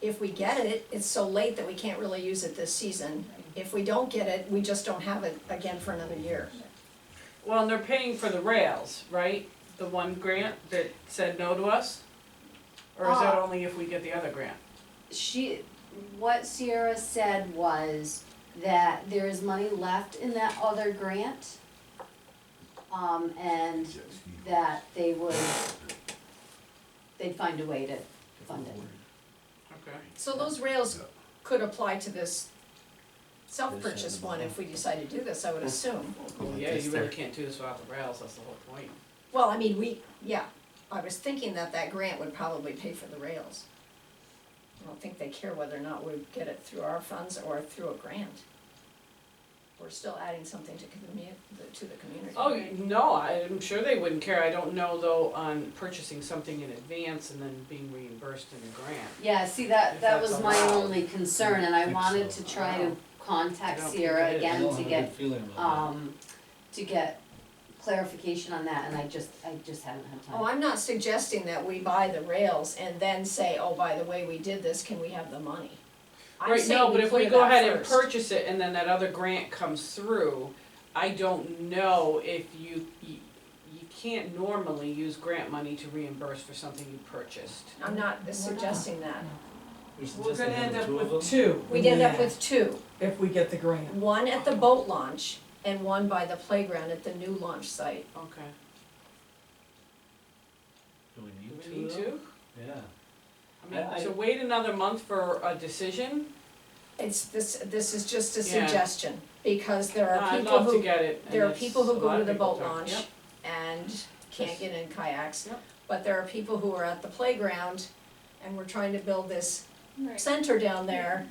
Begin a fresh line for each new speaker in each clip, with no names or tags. if we get it, it's so late that we can't really use it this season. If we don't get it, we just don't have it again for another year.
Well, and they're paying for the rails, right? The one grant that said no to us? Or is that
Uh.
only if we get the other grant?
she, what Sierra said was that there is money left in that other grant. Um, and that they would, they'd find a way to fund it.
Okay.
So those rails could apply to this self-purchase one if we decide to do this, I would assume.
Well, yeah, you really can't do this without the rails, that's the whole point.
Well, I mean, we, yeah, I was thinking that that grant would probably pay for the rails. I don't think they care whether or not we get it through our funds or through a grant. We're still adding something to commu- to the community.
Oh, y- no, I'm sure they wouldn't care. I don't know though on purchasing something in advance and then being reimbursed in the grant.
Yeah, see, that,
If
that
that's
was my
allowed.
only concern and I
Think
wanted
so.
to try to
I
contact
don't think
Sierra
it is.
again to get,
I don't have a good feeling about
um, to get clarification on that and I just, I just haven't had time.
Oh, I'm not suggesting that we buy the rails and then say, oh, by the way, we did this, can we have the money? I'm
Right,
saying
no, but if we
clear
go
that
ahead and
first.
purchase it and then that other grant comes through, I don't know if you, you, you can't normally use grant money to reimburse for something you purchased.
I'm not suggesting that.
that.
We're gonna end up with
two.
two.
We'd end up with two,
If we get the grant.
one at the boat launch and one by the playground at the new launch site.
Okay.
Do
Do
we
we
need
need
two of them?
to?
Yeah.
I mean,
I-
to wait another month for a decision?
It's, this, this is just a
Yeah.
suggestion, because there
Nah,
are
I'd
people
love to
who,
get it. and
there are
it's-
people who
a lot
go to
of
the
people
boat
talk-
launch
Yep.
and can't get in kayaks.
Yep.
But there are people who are at the playground and we're trying to build this
Right.
center down there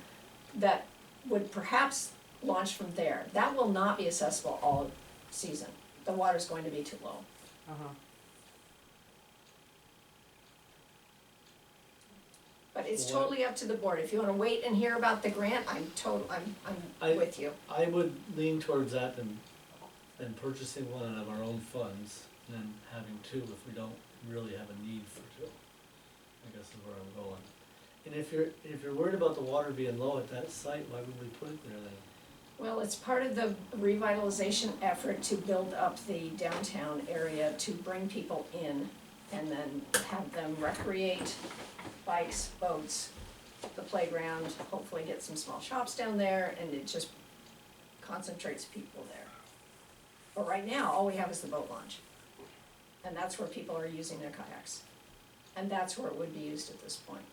that would perhaps launch from there. That will not be accessible all season. The water's going to be too low.
Uh-huh.
But it's
What-
totally up to the board. If you wanna wait and hear about the grant, I'm total, I'm,
I-
I'm with you.
I would lean towards that than, than purchasing one out of our own funds than having two if we don't really have a need for two. I guess is where I'm going. And if you're, if you're worried about the water being low at that site, why would we put it there then?
Well, it's part of the revitalization effort to build up the downtown area to bring people in and then have them recreate bikes, boats, the playground, hopefully get some small shops down there and it just concentrates people there. But right now, all we have is the boat launch. And that's where people are using their kayaks. And that's where it would be used at this point.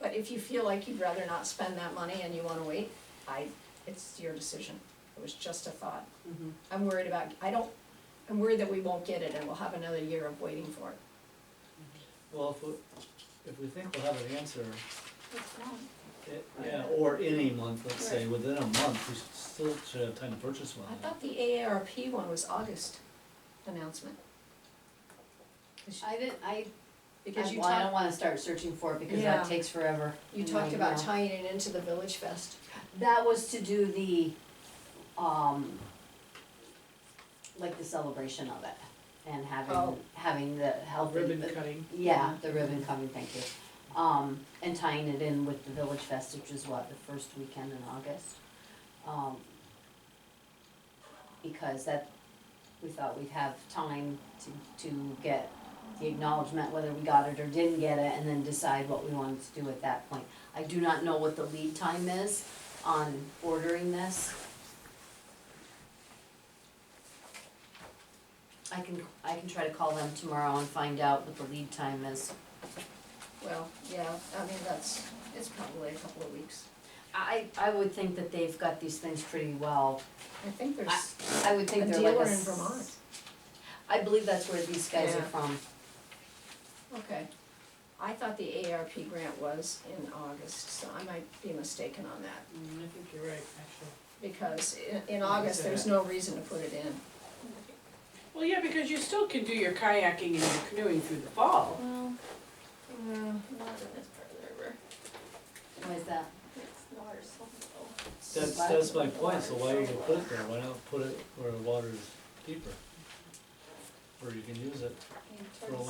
But if you feel like you'd rather not spend that money and you wanna wait, I, it's your decision. It was just a thought.
Mm-hmm.
Mhm.
I'm worried about, I don't, I'm worried that we won't get it and we'll have another year of waiting for it.
Well, if we, if we think we'll have an answer,
It's not.
it, yeah, or in a month, let's say, within a month, we should still should have time to purchase one.
I thought the AARP one was August announcement.
I didn't, I,
Because
I,
you
well, I don't
talked,
wanna start searching for it because
Yeah.
that takes forever.
you
and
talked
I-
about
yeah.
tying it into the Village Fest.
That was to do the, um, like the celebration of it and
Oh.
having, having the healthy.
Ribbon cutting.
Yeah, the ribbon coming, thank you. Um, and tying it in with the Village Fest, which is what, the first weekend in August? Um, because that, we thought we'd have time to, to get the acknowledgement, whether we got it or didn't get it, and then decide what we wanted to do at that point. I do not know what the lead time is on ordering this. I can, I can try to call them tomorrow and find out what the lead time is.
Well, yeah, I mean, that's, it's probably a couple of weeks.
I, I would think that they've got these things pretty well.
I think there's,
I would
A
think they're like a.
dealer in
s-
Vermont.
I believe that's where these guys are
Yeah.
from.
okay. I thought the ARP grant was in August, so I might be mistaken on that.
Mm, I think you're right, actually.
Because in, in August, there's no reason to put it in.
Well, yeah, because you still can do your kayaking and your canoeing through the fall.
Well,
Mm,
not in this part of the river.
Why is that?
It's the water's so low.
That's,
Why-
that's my point, so why would you put it there, why not put it where the water's deeper? Where you can use it
And
for a
towards